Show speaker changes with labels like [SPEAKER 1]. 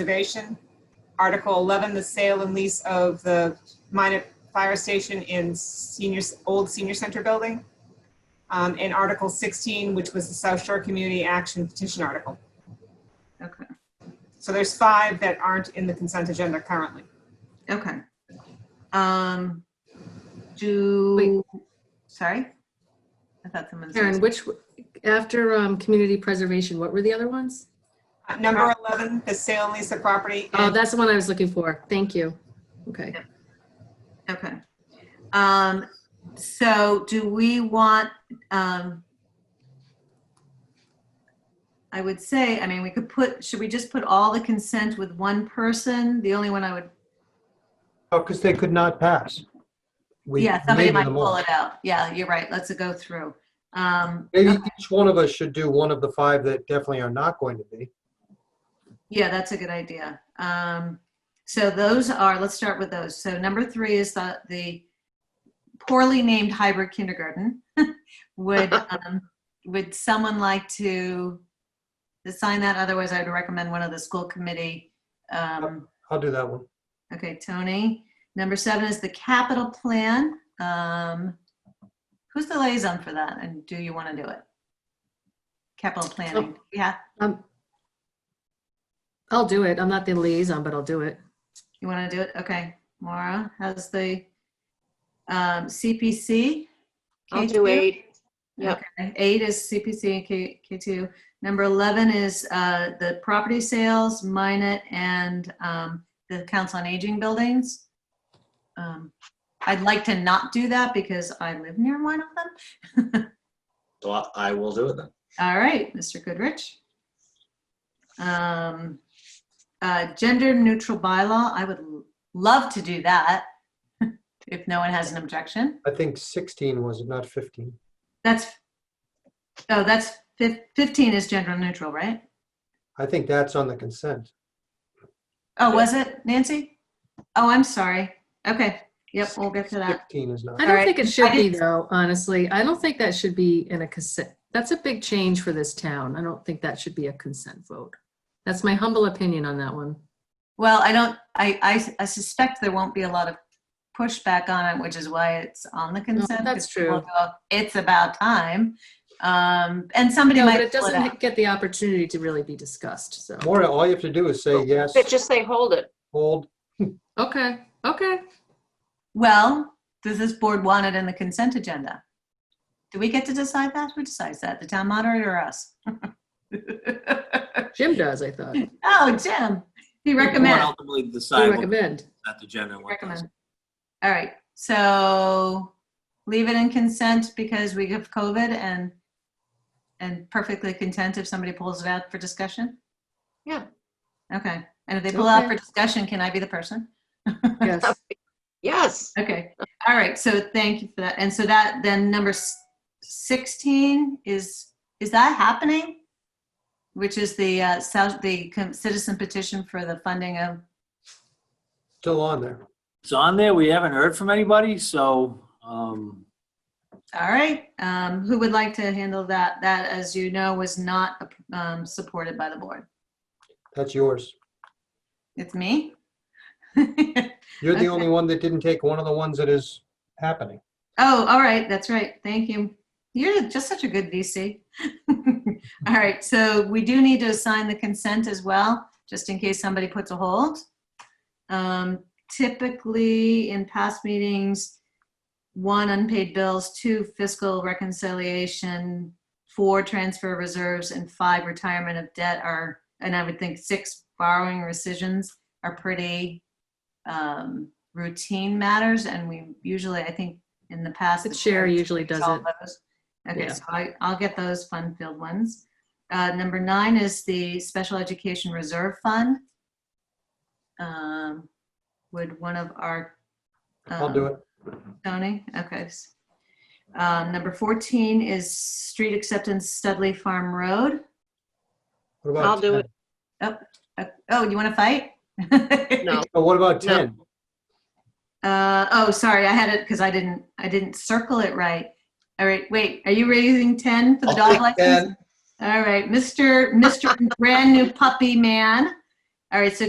[SPEAKER 1] Preservation. Article 11, the sale and lease of the minor fire station in seniors, old senior center building. Um, And Article 16, which was the South Shore Community Action Petition Article.
[SPEAKER 2] Okay,
[SPEAKER 1] So there's five that aren't in the consent agenda currently.
[SPEAKER 2] okay. Um, do, sorry? I thought someone
[SPEAKER 3] Karen,
[SPEAKER 2] said,
[SPEAKER 3] which, after um, community preservation, what were the other ones?
[SPEAKER 1] Uh, Number 11, the sale and lease of property.
[SPEAKER 3] Oh,
[SPEAKER 1] in-
[SPEAKER 3] that's the one I was looking for. Thank you. Okay.
[SPEAKER 2] okay. Um, so do we want, um, I would say, I mean, we could put, should we just put all the consent with one person? The only one I would,
[SPEAKER 4] Oh, because they could not pass. We
[SPEAKER 2] yeah, somebody
[SPEAKER 4] needed
[SPEAKER 2] might
[SPEAKER 4] them all.
[SPEAKER 2] pull it out. Yeah, you're right. Let's go through. Um,
[SPEAKER 4] Maybe each one of us should do one of the five that definitely are not going to be.
[SPEAKER 2] Yeah, that's a good idea. Um, so those are, let's start with those. So number three is the, the poorly named hybrid kindergarten. Would, um, would someone like to assign that? Otherwise, I'd recommend one of the school committee. Um,
[SPEAKER 4] I'll do that one.
[SPEAKER 2] okay, Tony. Number seven is the capital plan. Um, who's the liaison for that? And do you want to do it? Capital planning. Yeah,
[SPEAKER 3] Um, I'll do it. I'm not the liaison, but I'll do it.
[SPEAKER 2] You want to do it? Okay. Mara, how's the um, CPC?
[SPEAKER 5] I'll
[SPEAKER 2] K2?
[SPEAKER 5] do eight. Yep.
[SPEAKER 2] Okay. Eight is CPC and K, K2. Number 11 is uh, the property sales, Minot, and um, the Council on Aging buildings. Um, I'd like to not do that because I live near one of them.
[SPEAKER 6] So I- I will do it then.
[SPEAKER 2] All right, Mr. Goodrich. Um, uh, gender neutral bylaw, I would l- love to do that. If no one has an objection,
[SPEAKER 4] I think 16 was it, not 15.
[SPEAKER 2] that's, oh, that's fif- fifteen is gender neutral, right?
[SPEAKER 4] I think that's on the consent.
[SPEAKER 2] Oh, was it Nancy? Oh, I'm sorry. Okay, yep, we'll get to that.
[SPEAKER 4] 15 is not.
[SPEAKER 3] I don't
[SPEAKER 2] Alright.
[SPEAKER 3] think it should
[SPEAKER 2] I
[SPEAKER 3] be
[SPEAKER 2] didn't-
[SPEAKER 3] though, honestly. I don't think that should be in a consent. That's a big change for this town. I don't think that should be a consent vote. That's my humble opinion on that one.
[SPEAKER 2] Well, I don't, I, I, I suspect there won't be a lot of pushback on it, which is why it's on the consent.
[SPEAKER 3] that's
[SPEAKER 2] 'cause people
[SPEAKER 3] true.
[SPEAKER 2] go, It's about time. Um, and somebody
[SPEAKER 3] No,
[SPEAKER 2] might.
[SPEAKER 3] but it
[SPEAKER 2] pull out.
[SPEAKER 3] doesn't get the opportunity to really be discussed, so.
[SPEAKER 4] Maura, all you have to do is say yes,
[SPEAKER 5] But just say hold it.
[SPEAKER 4] hold.
[SPEAKER 3] Okay, okay.
[SPEAKER 2] Well, does this board want it in the consent agenda? Do we get to decide that? Who decides that? The town moderator or us?
[SPEAKER 3] Jim does, I thought. You
[SPEAKER 2] Oh, Jim, he recommends.
[SPEAKER 6] Ultimately decide what
[SPEAKER 3] recommend.
[SPEAKER 6] that the agenda and what doesn't.
[SPEAKER 2] Recommend. All right, so leave it in consent because we have COVID and, and perfectly content if somebody pulls it out for discussion?
[SPEAKER 5] Yeah.
[SPEAKER 2] Okay, and if they pull out
[SPEAKER 3] Okay.
[SPEAKER 2] for discussion, can I be the person?
[SPEAKER 3] Yes.
[SPEAKER 5] Yes.
[SPEAKER 2] Okay, all right, so thank you for that. And so that, then number s- 16 is, is that happening? Which is the, uh, South, the com- citizen petition for the funding of,
[SPEAKER 4] Still on there.
[SPEAKER 7] It's on there. We haven't heard from anybody, so, um,
[SPEAKER 2] all right. um, Who would like to handle that? That, as you know, was not um, supported by the board.
[SPEAKER 4] That's yours.
[SPEAKER 2] It's me? Oh,
[SPEAKER 4] You're
[SPEAKER 2] Okay.
[SPEAKER 4] the only one that didn't take one of the ones that is happening.
[SPEAKER 2] Oh, all right, that's right. Thank you. You're just such a good VC. All right, so we do need to assign the consent as well, just in case somebody puts a hold. Um, Typically, in past meetings, one, unpaid bills, two, fiscal reconciliation, four, transfer reserves, and five, retirement of debt are, and I would think six, borrowing rescissions are pretty um, routine matters, and we usually, I think, in the past.
[SPEAKER 3] The chair usually does
[SPEAKER 2] all
[SPEAKER 3] it.
[SPEAKER 2] those. Okay,
[SPEAKER 3] Yeah.
[SPEAKER 2] so I, I'll get those fun-filled ones. Uh, number nine is the Special Education Reserve Fund. Um, Would one of our.
[SPEAKER 4] I'll do
[SPEAKER 2] um,
[SPEAKER 4] it.
[SPEAKER 2] Tony, okay. S- Um, number fourteen is street acceptance Studley Farm Road.
[SPEAKER 4] What about
[SPEAKER 5] I'll do
[SPEAKER 4] 10?
[SPEAKER 5] it.
[SPEAKER 2] Uh, Oh, you want to fight?
[SPEAKER 5] No.
[SPEAKER 4] Oh, what about
[SPEAKER 5] No.
[SPEAKER 4] 10?
[SPEAKER 2] Uh, oh, sorry, I had it because I didn't, I didn't circle it right. All right, wait, are you raising ten for the
[SPEAKER 6] I'll
[SPEAKER 2] dog
[SPEAKER 6] take
[SPEAKER 2] license? All right, Mr. Mr. Brand New Puppy Man All right, so